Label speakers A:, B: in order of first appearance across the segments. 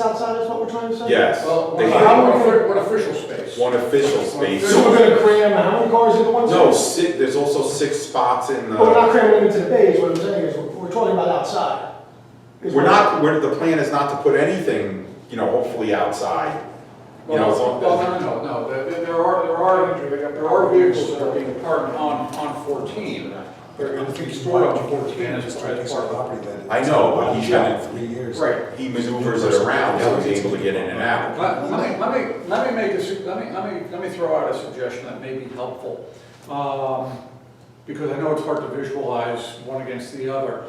A: outside is what we're trying to say?
B: Yes.
C: Well,
B: They
C: what
B: have
C: offi- what official space?
B: one official space.
A: So we're gonna cram, how many cars in the one?
B: No,
A: space?
B: si there's also six spots in
A: But
C: Oh,
A: we're not
B: the,
A: cramming them into the bays, what I'm saying is, we're we're talking about outside. Is
B: we're
A: what-
B: not, we're, the plan is not to put anything, you know, hopefully outside. You know, as
C: Well,
B: long
C: no, no, no, there, there are, there are, there are vehicles that are being parked on, on fourteen. They're going to be stored on fourteen as part of
B: I know, but he's had it
D: three years.
C: Right.
B: he maneuvers it around, so he's able to get in and out.
C: Let let me, let me, let me make a, su- let me, let me, let me throw out a suggestion that may be helpful. Um, Because I know it's hard to visualize one against the other.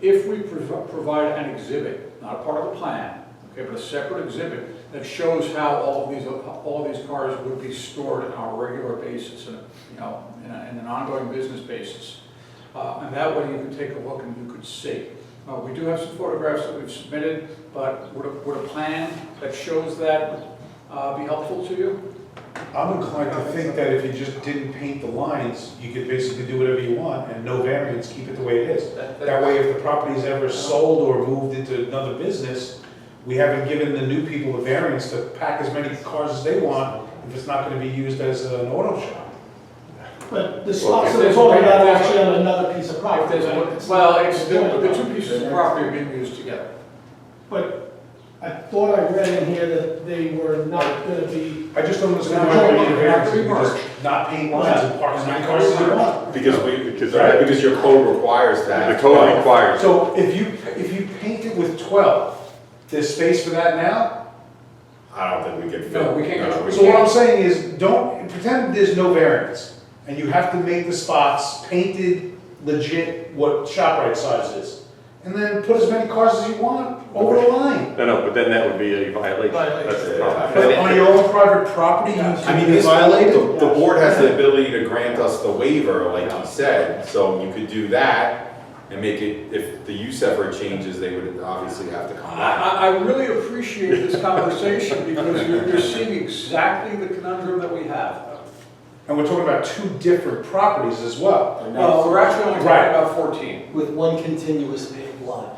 C: If we prov- provide an exhibit, not a part of the plan, okay, but a separate exhibit that shows how all of these, all of these cars would be stored on a regular basis and, you know, in a- in an ongoing business basis. Uh, And that way you can take a look and you could see. Uh, We do have some photographs that we've submitted, but would a, would a plan that shows that uh, be helpful to you?
E: I'm inclined to think that if you just didn't paint the lines, you could basically do whatever you want and no variance, keep it the way it is.
C: That-
E: That way, if the property's ever sold or moved into another business, we haven't given the new people the variance to pack as many cars as they want if it's not gonna be used as an auto shop.
A: But the spots
B: Well,
C: if
A: that we're
C: there's-
A: talking about are
C: if there's-
A: actually on another piece of
C: If
A: property.
C: there's
A: right?
C: a- Well, it's, the the two pieces of
A: Yeah.
C: property are being used together.
A: But I thought I read in here that they were not gonna be,
E: I just don't understand
C: Now,
E: why we need a
C: now,
E: variance, if we
C: pre-merge.
E: just not paint lines and park as many cars as we want.
B: Because we, because,
E: Right.
B: because your code requires that.
F: The code requires.
E: So if you, if you paint it with twelve, there's space for that now?
B: I don't think we can fit.
C: No, we can't
B: no,
C: go-
B: we
E: So what I'm saying is, don't, pretend there's no variance, and you have to make the spots painted legit what ShopRite size is. And then put as many cars as you want over the line.
F: No, no, but then that would be a violation, that's the problem.
E: But on your own private property, you
B: I mean,
E: can
B: this,
E: violate
B: the,
E: it.
B: the board has the ability to grant us the waiver, like you said, so you could do that and make it, if the use ever changes, they would obviously have to come
C: I,
B: back.
C: I I really appreciate this conversation because you're, you're seeing exactly the conundrum that we have.
E: And we're talking about two different properties as well.
C: Well, we're actually only talking
E: Right.
C: about fourteen.
G: with one continuous paved lot.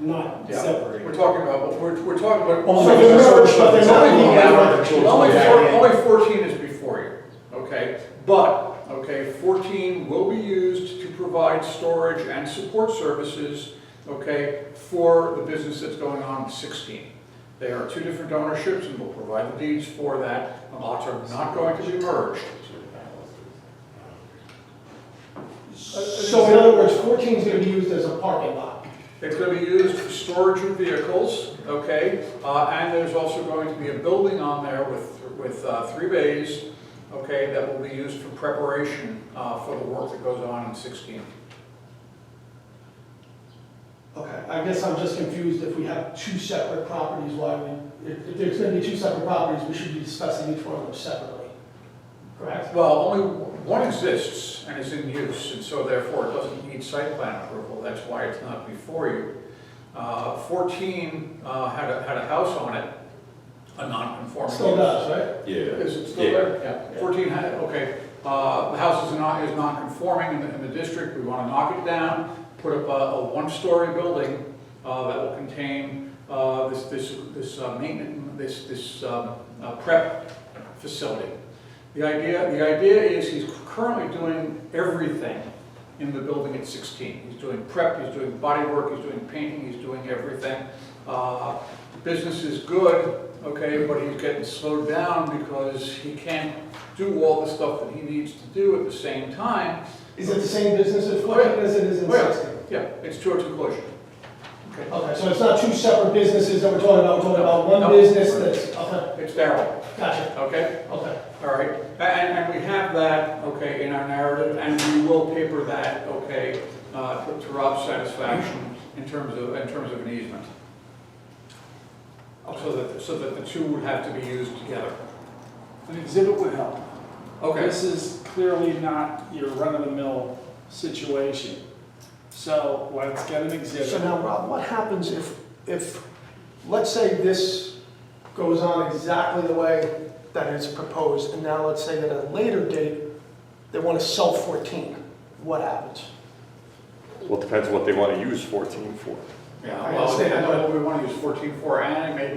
A: not
C: Yeah.
A: separated.
C: We're talking about, we're, we're talking about.
E: Only
A: So
C: Only
A: they're
E: the
A: not-
E: search
A: but they're
E: of
A: not
E: the
A: being
E: applicant.
A: advertised.
C: Only four,
E: Yeah.
C: only fourteen is before you, okay? But, okay, fourteen will be used to provide storage and support services, okay, for the business that's going on in sixteen. They are two different ownerships and we will provide the deeds for that, the lots are not going to be merged.
A: So in other words, 14 is gonna be used as a parking lot.
C: It's gonna be used for storage of vehicles, okay? Uh, and there's also going to be a building on there with, with, uh, three bays, okay, that will be used for preparation, uh, for the work that goes on in sixteen.
A: Okay, I guess I'm just confused if we have two separate properties, why we, if, if there's gonna be two separate properties, we should be discussing each one of them separately. Correct?
C: Well, only one exists and is in use, and so therefore it doesn't need site plan approval, that's why it's not before you. Uh, fourteen, uh, had a, had a house on it, a non-conforming
A: Still
C: use.
A: does, right?
B: Yeah.
C: Is it still
B: Yeah.
C: there? Yeah. Fourteen, ha- okay, uh, the house is not, is non-conforming in the, in the district, we wanna knock it down, put up a, a one-story building, uh, that will contain, uh, this, this, this uh, maintenance, this, this, um, uh, prep facility. The idea, the idea is he's currently doing everything in the building at sixteen. He's doing prep, he's doing body work, he's doing painting, he's doing everything. Uh, Business is good, okay, but he's getting slowed down because he can't do all the stuff that he needs to do at the same time.
A: Is it the same business at 14 as it is in
C: Well,
A: 16?
C: Yeah, it's two or two collision. Okay.
A: Okay, so it's not two separate businesses that we're talking about, we're talking about
C: No.
A: one business that's, okay,
C: It's Darrell,
A: gotcha,
C: okay?
A: okay.
C: All right, and, and we have that, okay, in our narrative, and we will paper that, okay, uh, to to Rob's satisfaction in terms of, in terms of an easement. Oh, So that, so that the two would have to be used together.
H: An exhibit would help.
C: Okay,
H: This is clearly not your run-of-the-mill situation. So let's get an
A: So
H: exhibit.
A: now, Rob, what happens if, if, let's say this goes on exactly the way that it's proposed, and now let's say that at a later date, they want to sell 14, what happens?
F: Well, it depends what they want to use 14 for.
C: yeah,
A: I
C: well,
A: understand.
C: I know what we want to use fourteen four, and it may